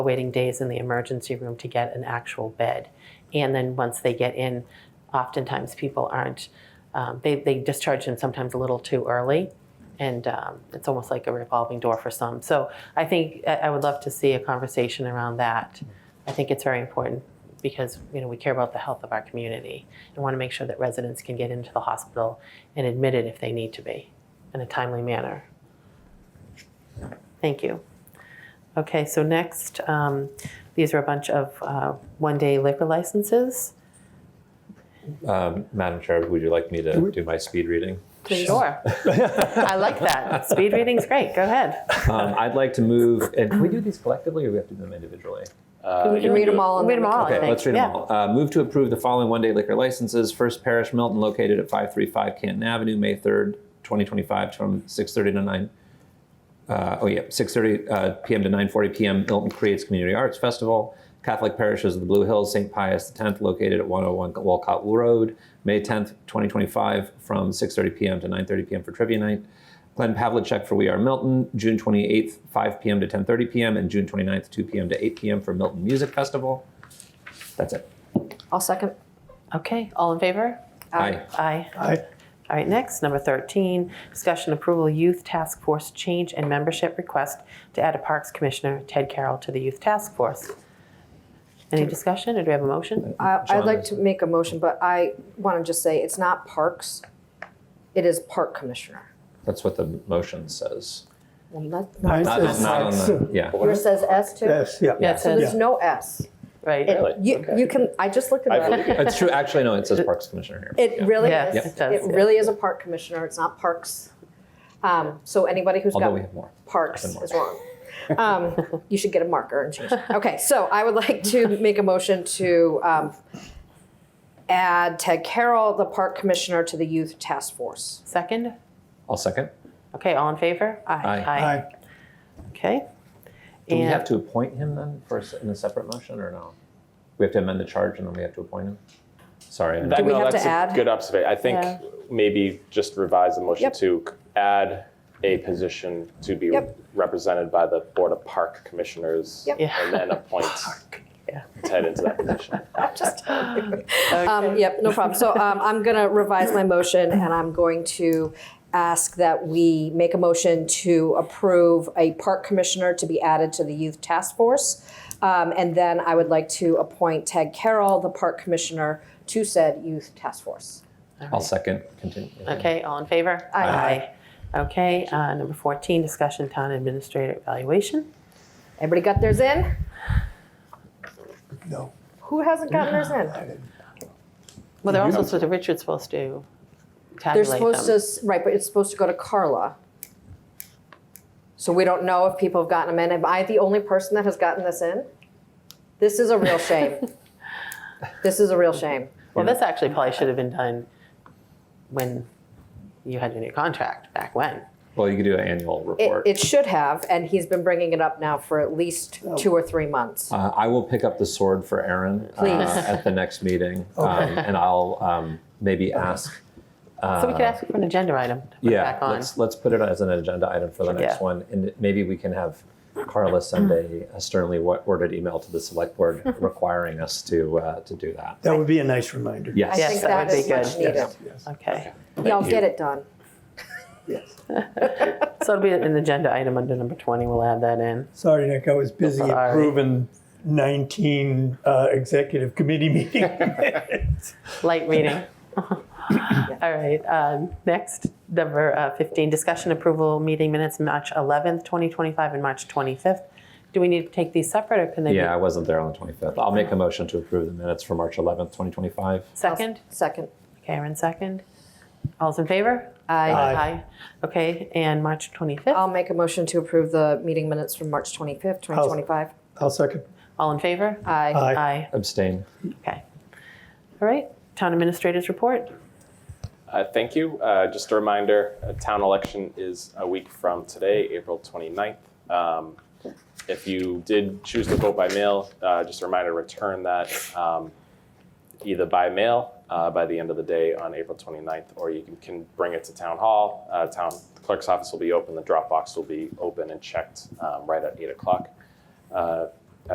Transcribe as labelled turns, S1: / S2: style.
S1: waiting days in the emergency room to get an actual bed. And then once they get in, oftentimes people aren't, um, they, they discharge them sometimes a little too early. And um, it's almost like a revolving door for some. So I think I I would love to see a conversation around that. I think it's very important because you know we care about the health of our community and want to make sure that residents can get into the hospital and admitted if they need to be in a timely manner. Thank you. Okay, so next, um, these are a bunch of uh, one-day liquor licenses.
S2: Um, Madam Chair, would you like me to do my speed reading?
S1: Sure. I like that. Speed reading's great. Go ahead.
S2: Um, I'd like to move, and can we do these collectively or we have to do them individually?
S3: We can read them all. and
S1: Read
S3: then
S1: 'em
S3: we can-
S1: all. I
S2: Okay,
S1: think,
S2: let's read
S1: yeah.
S2: them all. Uh, Move to approve the following one-day liquor licenses. First Parish Milton located at 535 Canton Avenue, May 3rd, 2025, from 6:30 to 9, uh, oh yeah, 6:30 uh, PM to 9:40 PM, Milton Creates Community Arts Festival. Catholic Parishes of the Blue Hills, St. Pius X located at 101 Walcott Road, May 10th, 2025, from 6:30 PM to 9:30 PM for trivia night. Glenn Pavlicek for We Are Milton, June 28th, 5 PM to 10:30 PM, and June 29th, 2 PM to 8 PM for Milton Music Festival. That's it.
S3: I'll second.
S1: Okay, all in favor?
S2: Aye.
S1: Aye.
S4: Aye.
S1: All right, next, number 13, discussion approval youth task force change and membership request to add a Parks Commissioner, Ted Carroll, to the youth task force. Any discussion, or do we have a motion?
S3: I- I'd like
S2: Genres.
S3: to make a motion, but I want to just say it's not parks. It is park commissioner.
S2: That's what the motion says.
S3: Well, not-
S4: Mine
S2: Not,
S4: says
S2: not on the,
S4: six.
S2: yeah.
S3: Yours says S too?
S4: Yes, yeah.
S1: Yeah, it
S3: So
S1: says,
S3: there's no S. It-
S1: right,
S5: Really?
S3: You, you can, I just looked
S5: I
S3: at
S5: believe
S3: that.
S2: It's true. Actually, no, it says Parks Commissioner here.
S3: It really
S1: Yeah,
S3: is.
S1: Yep. it does,
S3: It
S1: yeah.
S3: really is a park commissioner. It's not parks. Um, So anybody who's
S2: Although we
S3: got
S2: have more.
S3: parks
S2: Nothing more.
S3: is wrong. Um, You should get a marker and change it. Okay, so I would like to make a motion to um, add Ted Carroll, the park commissioner, to the youth task force.
S1: second?
S2: I'll second.
S1: Okay, all in favor?
S2: Aye.
S4: Aye.
S1: Okay.
S2: Do we have
S1: And
S2: to appoint him then for, a s- in a separate motion or no? We have to amend the charge and then we have to appoint him? Sorry. I-
S3: Do we
S5: no,
S3: have to
S5: that's a
S3: add?
S5: Good observation. I think
S1: Yeah.
S5: maybe just revise the motion
S3: Yep.
S5: to c- add a position to be
S3: Yep.
S5: represented by the Board of Park Commissioners
S3: Yep.
S1: Yeah.
S5: and then appoint
S1: yeah.
S5: Ted into that position.
S3: Just. Um, yep, no problem. So um, I'm going to revise my motion and I'm going to ask that we make a motion to approve a park commissioner to be added to the youth task force. Um, and then I would like to appoint Ted Carroll, the park commissioner, to said youth task force.
S2: I'll second. Continue.
S1: Okay, all in favor?
S3: Aye.
S1: Aye. Okay, uh, number 14, discussion town administrator evaluation.
S3: Everybody got theirs in?
S4: No.
S3: Who hasn't gotten theirs in?
S1: Well, they're also, supposed to Richard's supposed to
S3: They're
S1: tabulate them.
S3: supposed to, s- right, but it's supposed to go to Carla. So we don't know if people have gotten them in. Am I the only person that has gotten this in? This is a real shame. This is a real shame.
S1: Well, this actually probably should have been done when you had your new contract, back when.
S2: Well, you could do an annual
S3: It,
S2: report.
S3: it should have, and he's been bringing it up now for at least two or three months.
S2: Uh, I will pick up the sword for Aaron uh,
S3: Please.
S2: at the next meeting. um, And I'll um, maybe ask
S1: So we could ask for an agenda item to put
S2: Uh, Yeah,
S1: back on.
S2: let's let's put it as an agenda item for the next
S1: Yeah.
S2: one, and maybe we can have Carla send a, a sternly wo- worded email to the select board requiring us to uh, to do that.
S4: That would be a nice reminder.
S2: Yes.
S3: I
S1: Yes,
S3: think
S1: that
S3: that
S1: would be
S3: is much
S1: good.
S3: needed.
S4: Yes,
S1: Okay,
S3: Y'all get it done.
S4: yes.
S1: so it'll be an agenda item under number 20, we'll add that in.
S4: Sorry, Nick, I was busy
S1: Sorry.
S4: approving 19 uh, executive committee meeting. minutes.
S1: Light reading. All right, um, next, number uh, 15, discussion approval meeting minutes, March 11th, 2025, and March 25th. Do we need to take these separate, or can they be
S2: Yeah, I wasn't there on the 25th. I'll make a motion to approve the minutes for March 11th, 2025.
S1: second?
S3: Second.
S1: Karen, second. All's in favor?
S3: I,
S1: Aye. Okay, and March 25th,
S3: I'll make a motion to approve the meeting minutes from March 25th, 2025.
S4: I'll second.
S1: all in favor?
S3: Aye.
S4: Aye.
S1: Aye.
S2: Abstain.
S1: Okay. All right, town administrators report.
S5: Uh, thank you. Uh, just a reminder, a town election is a week from today, April 29th. Um, if you did choose to vote by mail, uh, just a reminder, return that um, either by mail uh, by the end of the day on April 29th, or you can, can bring it to town hall. Uh, town clerk's office will be open, the drop box will be open and checked um, right at 8 o'clock. Uh,